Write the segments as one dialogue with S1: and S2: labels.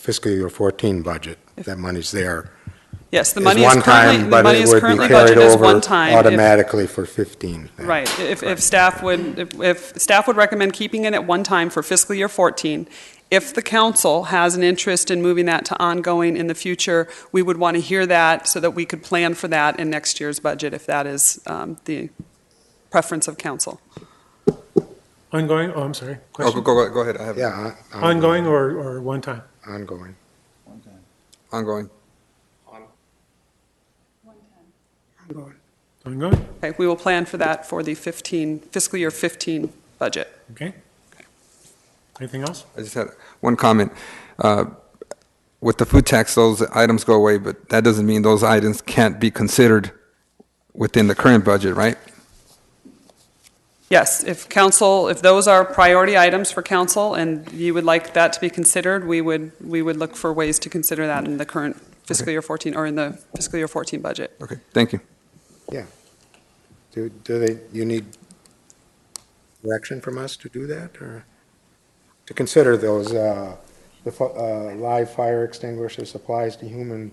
S1: fiscal year 14 budget. That money's there.
S2: Yes, the
S1: It's
S2: money is
S1: one time,
S2: currently, the
S1: but
S2: money
S1: it
S2: is
S1: would be
S2: currently
S1: carried
S2: budgeted as
S1: over
S2: one time. If-
S1: Automatically for 15. then.
S2: Right, if, if staff would, if- if staff would recommend keeping it at one time for fiscal year 14. If the council has an interest in moving that to ongoing in the future, we would want to hear that so that we could plan for that in next year's budget if that is um, the preference of council.
S3: Ongoing, oh, I'm sorry.
S4: Oh,
S3: Question?
S4: go, go, go ahead, I have it.
S1: Yeah. on-
S3: Ongoing or, or one time?
S1: Ongoing.
S4: Ongoing.
S3: Ongoing,
S2: Okay, we will plan for that for the 15, fiscal year 15 budget.
S3: okay. Anything else?
S4: I just had one comment. Uh, With the food tax, those items go away, but that doesn't mean those items can't be considered within the current budget, right?
S2: Yes, if council, if those are priority items for council and you would like that to be considered, we would, we would look for ways to consider that in the current fiscal year 14, or in the fiscal year 14 budget.
S4: Okay, thank you.
S1: Do, do they, you need direction from us to do that, or? To consider those, uh, the, fu- uh, live fire extinguisher supplies to human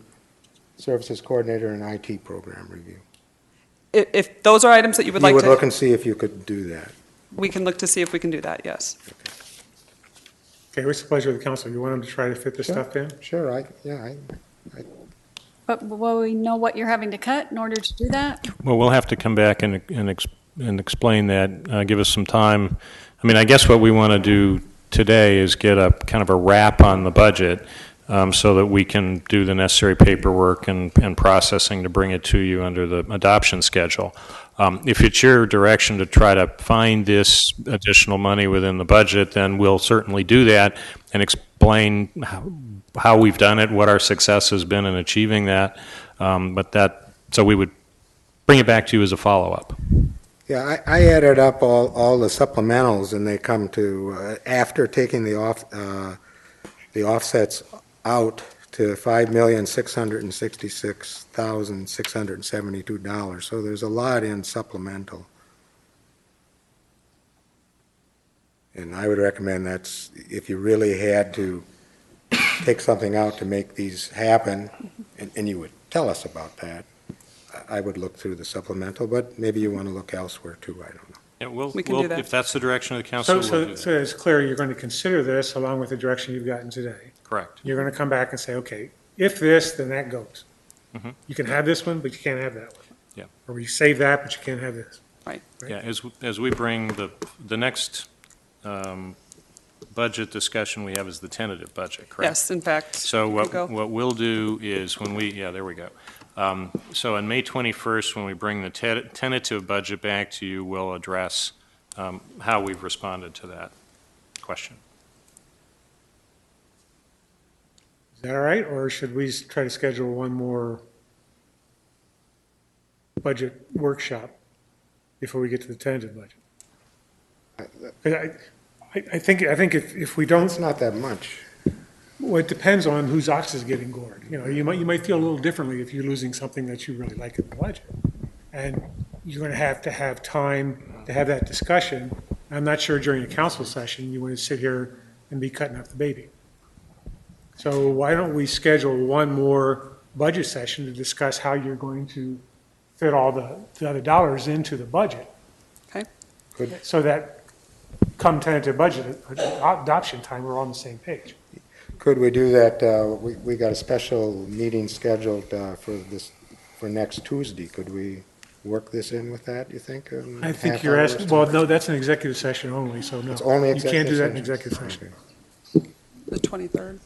S1: services coordinator and IT program review.
S2: If, if those are items that you would
S1: You
S2: like
S1: would look
S2: to,
S1: and see if you could do that.
S2: we can look to see if we can do that, yes.
S3: Okay, what's the pleasure of the council? You want them to try to fit this stuff in?
S1: Sure, I, yeah, I,
S5: But will we know what you're having to cut in order to do that?
S6: Well, we'll have to come back and, and, ex- and explain that, uh, give us some time. I mean, I guess what we want to do today is get a kind of a wrap on the budget um, so that we can do the necessary paperwork and, and processing to bring it to you under the adoption schedule. Um, if it's your direction to try to find this additional money within the budget, then we'll certainly do that and explain how, how we've done it, what our success has been in achieving that. Um, but that, so we would bring it back to you as a follow-up.
S1: Yeah, I, I added up all, all the supplementals, and they come to, uh, after taking the off, uh, the offsets out to five million, six hundred and sixty-six thousand, six hundred and seventy-two dollars. So there's a lot in supplemental. And I would recommend that's, if you really had to take something out to make these happen, and, and you would tell us about that, I- I would look through the supplemental, but maybe you want to look elsewhere too, I don't know.
S6: Yeah, we'll,
S2: We can do
S6: we'll-
S2: that.
S6: if that's the direction of the council,
S3: So,
S6: we'll
S3: so,
S6: do
S3: so
S6: that.
S3: it's clear you're going to consider this along with the direction you've gotten today.
S6: Correct.
S3: You're going to come back and say, okay, if this, then that goes.
S6: Mhm.
S3: You can have this one, but you can't have that one.
S6: Yeah.
S3: Or we save that, but you can't have this.
S6: Yeah, as, as we bring the, the next um, budget discussion we have is the tentative budget, correct?
S2: Yes, in fact,
S6: So
S2: Go.
S6: what, what we'll do is when we, yeah, there we go. Um, So on May 21st, when we bring the te- tentative budget back to you, we'll address um, how we've responded to that question.
S3: Is that all right, or should we s- try to schedule one more budget workshop before we get to the tentative budget? 'Cause I, I I think, I think if, if we don't,
S1: It's not that much.
S3: well, it depends on whose ox is getting gored. You know, you might, you might feel a little differently if you're losing something that you really like in the budget. And you're going to have to have time to have that discussion. I'm not sure during a council session, you want to sit here and be cutting up the baby. So why don't we schedule one more budget session to discuss how you're going to fit all the, the other dollars into the budget?
S2: Okay.
S1: Good.
S3: So that come tentative budget adoption time, we're on the same page.
S1: Could we do that, uh, we, we got a special meeting scheduled uh, for this, for next Tuesday. Could we work this in with that, you think? um,
S3: I
S1: half
S3: think you're
S1: hour or
S3: asking,
S1: so?
S3: well, no, that's an executive session only, so no.
S1: It's only
S3: You can't do that in
S1: executive session.
S3: executive session.
S2: the 23rd.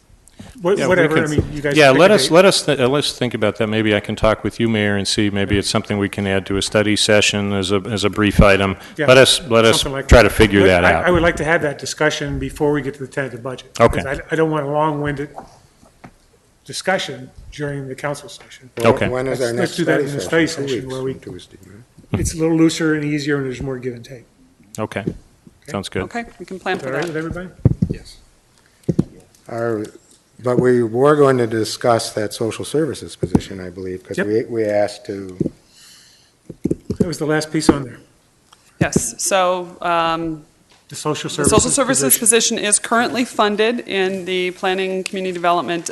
S3: Wha-
S6: Yeah, we
S3: Whatever, I
S6: can-
S3: mean, you guys.
S6: Yeah,
S3: pick a
S6: let us,
S3: date.
S6: let us, th- uh, let's think about that. Maybe I can talk with you, Mayor, and see, maybe it's something we can add to a study session as a, as a brief item.
S3: Yeah,
S6: Let us, let us
S3: something like
S6: try
S3: that.
S6: to figure
S3: But
S6: that
S3: I- I
S6: out.
S3: would like to have that discussion before we get to the tentative budget.
S6: Okay.
S3: because I, I don't want a long-winded discsion during the council session.
S1: Well,
S6: Okay.
S1: When is our
S3: Let's- let's
S1: next
S3: do that
S1: study
S3: in
S1: session?
S3: the study
S1: Two
S3: session
S1: weeks
S3: where we-
S1: from Tuesday, right?
S6: Hmm.
S3: It's a little looser and easier, and there's more give and take.
S6: Okay, sounds good.
S2: Okay, we can plan
S3: Is that
S2: for
S3: all right with
S2: that.
S3: everybody?
S1: Our, but we were going to discuss that social services position, I believe, because
S3: Yep.
S1: we, we asked to,
S3: That was the last piece on there.
S2: Yes, so um,
S3: the social
S2: The
S3: services
S2: social services
S3: position.
S2: position is currently funded in the Planning Community Development